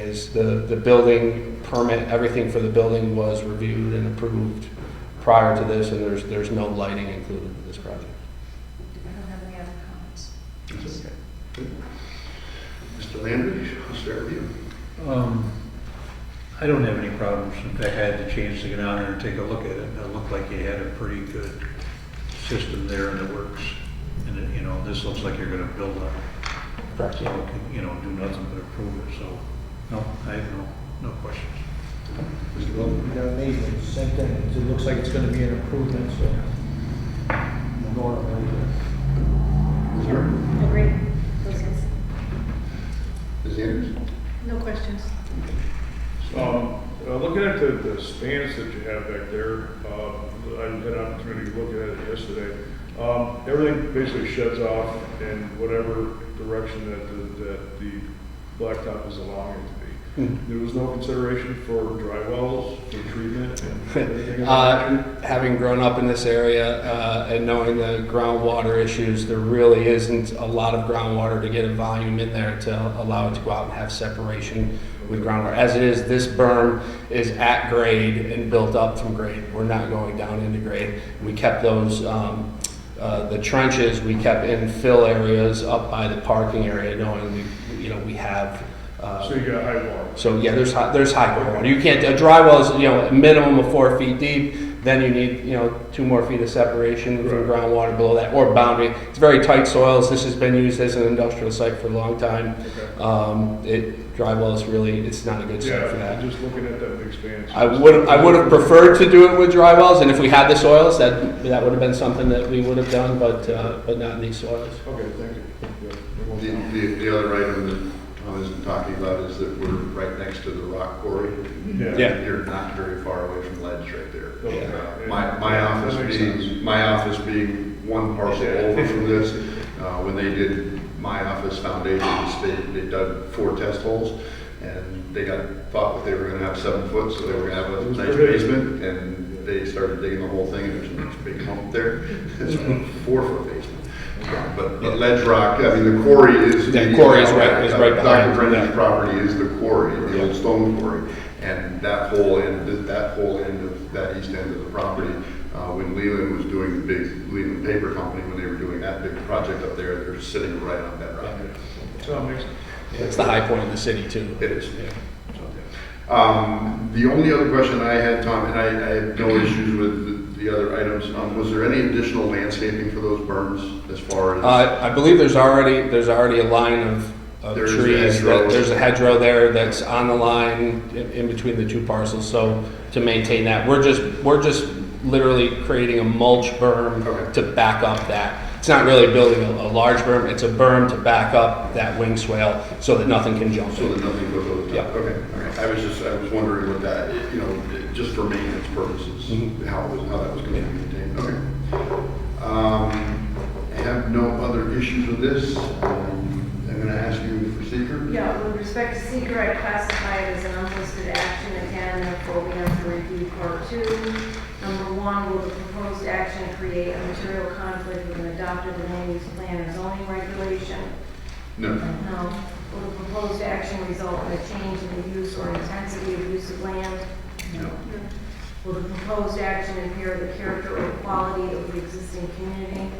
is the, the building permit, everything for the building was reviewed and approved prior to this, and there's, there's no lighting included in this project. I don't have any other comments. Mr. Landry, I'll start with you. Um, I don't have any problems. In fact, I had the chance to get out there and take a look at it, and it looked like you had a pretty good system there in the works. And, it- you know, this looks like you're gonna build on it, Correct. so, you can, you know, do nothing but improve it, so, no, I have no, no questions. Mr. Bowman? Yeah, amazing, same thing, it looks like it's gonna be an improvement, so. I'm going up there. Ms. Harmon? Agreed. Ms. Anders? No questions. Um, uh, Looking at the, the stands that you have back there, uh, I had an opportunity to look at it yesterday. Um, Everything basically sheds off in whatever direction that, the- that the blacktop is allowing it to be. Hmm. There was no consideration for dry wells, for treatment and anything of that nature? Uh, Having grown up in this area uh, and knowing the groundwater issues, there really isn't a lot of groundwater to get a volume in there to allow it to go out and have separation with groundwater. As it is, this berm is at grade and built up from grade. We're not going down into grade. We kept those, um, uh, the trenches, we kept in fill areas up by the parking area, knowing, we- you know, we have uh, So you got high water. so yeah, there's high, there's high ground water. You can't, a dry well is, you know, a minimum of four feet deep, then you need, you know, two more feet of separation from Right. groundwater below that, or boundary. It's very tight soils, this has been used as an industrial site for a long time. Okay. Um, it, dry well is really, it's not a good site for Yeah, that. just looking at that big stand. I would, I would have preferred to do it with dry wells, and if we had the soils, that, that would have been something that we would have done, but, uh, but not in these soils. Okay, thank you. Yeah, it The, won't- the, the other item that Tom isn't talking about is that we're right next to the rock quarry. Yeah. You're not very far away from ledge right there. Okay. Uh, My, my office That makes being, my office being one parcel Yeah. over from this, uh, when they did my office foundations, they, they dug four test holes, and they got, thought that they were gonna have seven foot, so they were gonna have It a was nice pretty. basement, and they started digging the whole thing, and there's a nice big hump there, it's a four foot basement. But, but ledge rock, I mean, the quarry is. Yeah, quarry is right- is right behind, Dr. Brendan's yeah. property is the quarry, the old stone quarry, and that whole end, that whole end of, that east end of the property, uh, when Leland was doing the big, Leland Paper Company, when they were doing that big project up there, they're sitting right on that rock. So it makes, It's the high point of the city too. It is. Um, The only other question I had, Tom, and I I had no issues with the the other items, um, was there any additional landscaping for those berms as far as? Uh, I believe there's already, there's already a line of, of There's a trees, hedgerow. that- there's a hedgerow there that's on the line in, in between the two parcels, so to maintain that, we're just, we're just literally creating a mulch berm Okay. to back up that. It's not really building a, a large berm, it's a berm to back up that wing swale so that nothing can jump So in. that nothing goes over the Yeah. top? Okay, all right. I was just, I was wondering what that, you know, just for maintenance purposes, how it was, how that was going to be maintained. Mm-hmm. Okay. Um, I have no other issues with this. Um, I'm going to ask you for secret. Yeah, with respect to seeker, I classify it as an unlisted action again, therefore we have to review part two. Number one, will the proposed action create a material conflict with an adopted land use plan or zoning regulation? No. No. Will the proposed action result in a change in the use or intensity of use of land? No. Will the proposed action impair the character or quality of the existing community?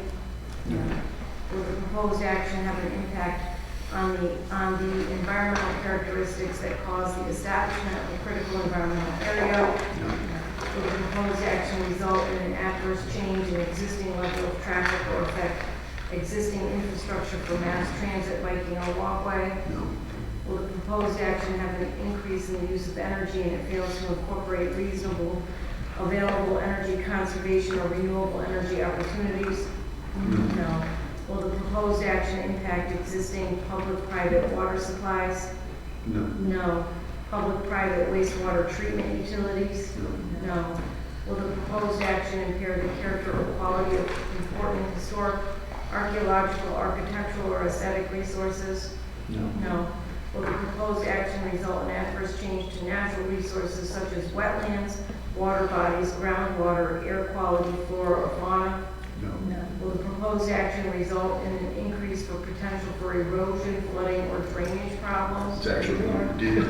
Will the proposed action have an impact on the, on the environmental characteristics that cause the establishment of a critical environmental area? Will the proposed action result in an adverse change in existing level of traffic or affect existing infrastructure for mass transit, biking, or walkway? No. Will the proposed action have an increase in the use of energy and it fails to incorporate reasonable available energy conservation or renewable energy opportunities? No. Will the proposed action impact existing public-private water supplies? No. No. Public-private wastewater treatment utilities? No. Will the proposed action impair the character or quality of important historic, archaeological, architectural, or aesthetic resources? No. No. Will the proposed action result in adverse change to natural resources such as wetlands, water bodies, groundwater, air quality, flora, or fauna? No. No. Will the proposed action result in an increase for potential for erosion, flooding, or drainage problems? It's actually, one. Did-